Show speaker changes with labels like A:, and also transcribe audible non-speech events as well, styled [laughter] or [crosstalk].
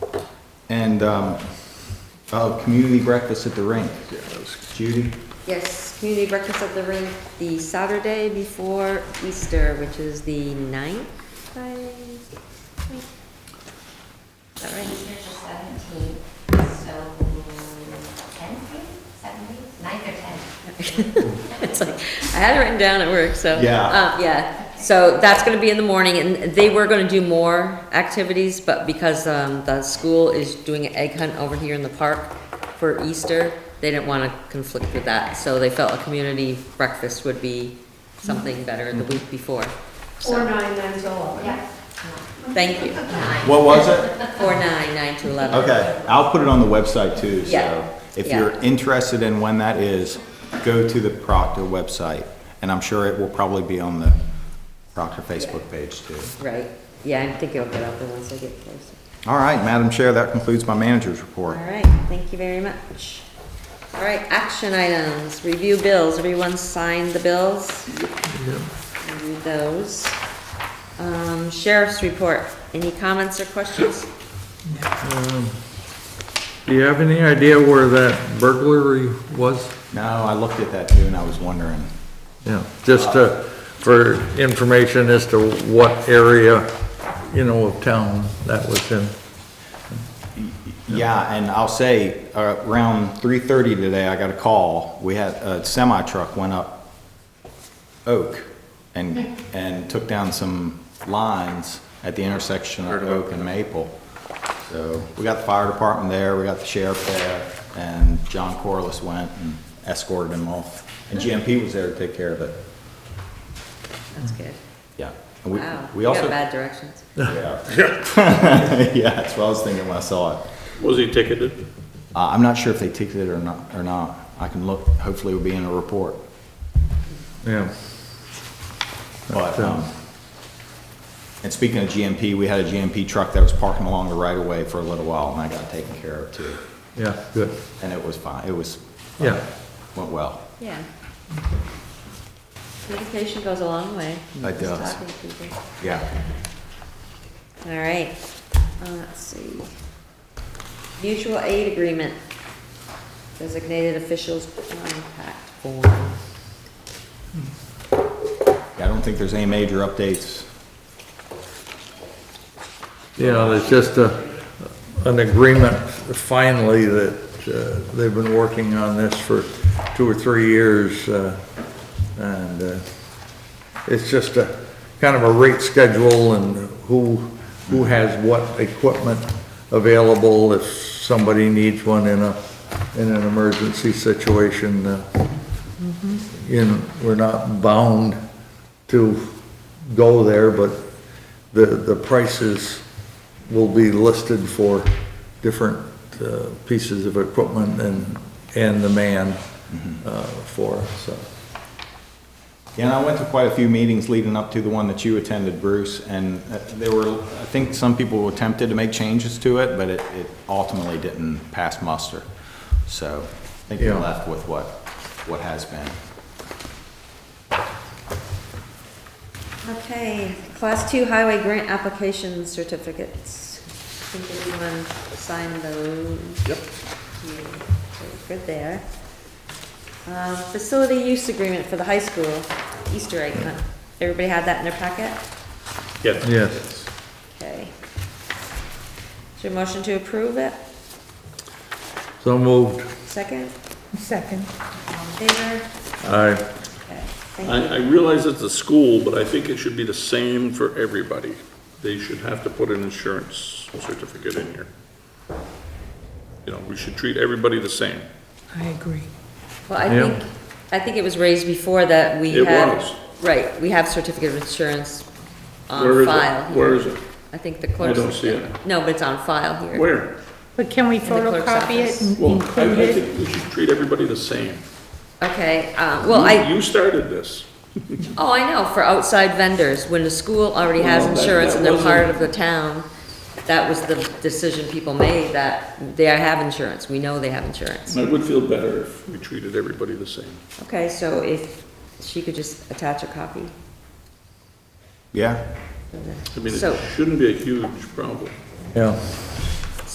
A: And, um, oh, community breakfast at the rink. Judy?
B: Yes, community breakfast at the rink the Saturday before Easter, which is the ninth, I think. Is that right?
C: Easter's the seventeenth, so tenth, seventeenth, ninth or
B: [laughs]
C: tenth?
B: It's like, I had it written down at work, so.
A: Yeah.
B: Uh, yeah, so that's gonna be in the morning, and they were gonna do more activities, but because, um, the school is doing an egg hunt over here in the park for Easter, they didn't wanna conflict with that, so they felt a community breakfast would be something better the week before.
D: Or
B: So,
D: nine, nine to eleven.
C: Yeah.
B: thank you.
A: What was it?
B: Four nine, nine to eleven.
A: Okay, I'll put it on the website too,
B: Yeah,
A: so if
B: yeah.
A: you're interested in when that is, go to the Proctor website. And I'm sure it will probably be on the Proctor Facebook page too.
B: Right, yeah, I think it'll get out there once I get closer.
A: All right, Madam Chair, that concludes my manager's report.
B: All right, thank you very much. All right, action items, review bills, everyone signed the bills? Review those. Um, sheriff's report, any comments or questions?
E: Do you have any idea where that burglary was?
A: No, I looked at that too and I was wondering.
E: Yeah, just to, for information as to what area, you know, of town that was in.
A: Yeah, and I'll say, uh, around three thirty today, I got a call. We had, a semi truck went up Oak and, and took down some lines at the intersection of Oak and Maple. So we got the fire department there, we got the sheriff there, and John Corliss went and escorted him off. And GMP was there to take care of it.
B: That's good.
A: Yeah. And we-
B: Wow,
A: we
B: you got
A: also-
B: bad directions.
A: Yeah. [laughs] Yeah, that's what I was thinking when I saw it.
F: Was he ticketed?
A: Uh, I'm not sure if they ticketed it or not, or not. I can look, hopefully it'll be in a report.
E: Yeah,
A: But, um, and speaking of GMP, we had a GMP truck that was parking along the right of way for a little while and I got taken care of too.
E: yeah, good.
A: And it was fine. It was,
E: Yeah,
A: went well.
B: Yeah. Communication goes a long way.
A: It
B: Just
A: does.
B: talking to people.
A: Yeah.
B: All right, uh, let's see. Mutual aid agreement, designated officials contact form.
A: I don't think there's any major updates.
E: you know, there's just a, an agreement finally that uh, they've been working on this for two or three years. uh, And uh, it's just a, kind of a rate schedule and who, who has what equipment available if somebody needs one in a, in an emergency situation. uh, you know, we're not bound to go there, but the, the prices will be listed for different uh, pieces of equipment and, and the man uh, for, it, so.
A: Yeah, and I went to quite a few meetings leading up to the one that you attended, Bruce, and uh, there were, I think some people were tempted to make changes to it, but it it ultimately didn't pass muster. So I think we're
E: Yeah.
A: left with what, what has been.
B: Okay, class two highway grant application certificates. I think everyone signed those. Yep. Good there. Um, facility use agreement for the high school, Easter egg hunt. Everybody had that in their packet?
F: Yes.
E: Yes.
B: Okay. Is there a motion to approve it?
E: So moved.
B: Second?
D: Second.
B: All in favor?
E: Aye.
B: Okay,
F: I,
B: thank
F: I
B: you.
F: realize it's a school, but I think it should be the same for everybody. They should have to put an insurance certificate in here. You know, we should treat everybody the same.
D: I agree.
B: Well, I
E: Yeah.
B: think, I think it was raised before that we
F: It
B: had.
F: was.
B: Right, we have certificate of insurance
F: Where
B: on
F: is it?
B: file. here.
F: Where is it?
B: I think the clerk's.
F: don't see it.
B: No, but it's on file here.
F: Where?
D: But can we
B: clerk's
D: photocopy
B: office.
D: it and
F: Well, I
D: include
F: I
D: it?
F: think we should treat everybody the same.
B: Okay, uh, well, I,
F: You you started this.
B: oh, I know, for outside vendors, when the school already has
F: Well, that-
B: insurance
F: that
B: and they're part
F: wasn't-
B: of the town, that was the decision people made, that they have insurance, we know they have insurance.
F: I would feel better if we treated everybody the same.
B: Okay, so if she could just attach a copy.
A: Yeah?
F: I mean,
B: So-
F: it shouldn't be a huge problem.
E: Yeah,